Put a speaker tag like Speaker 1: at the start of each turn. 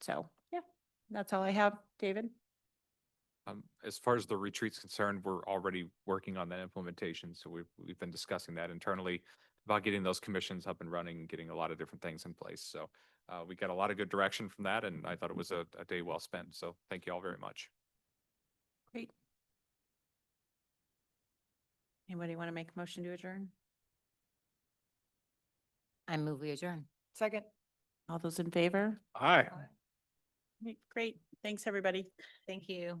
Speaker 1: So, yeah, that's all I have, David.
Speaker 2: Um, as far as the retreat's concerned, we're already working on that implementation, so we've, we've been discussing that internally about getting those commissions up and running, and getting a lot of different things in place, so uh, we got a lot of good direction from that, and I thought it was a, a day well spent, so thank you all very much.
Speaker 1: Great. Anybody want to make a motion to adjourn?
Speaker 3: I move we adjourn.
Speaker 4: Second.
Speaker 1: All those in favor?
Speaker 2: Aye.
Speaker 1: Great. Thanks, everybody.
Speaker 3: Thank you.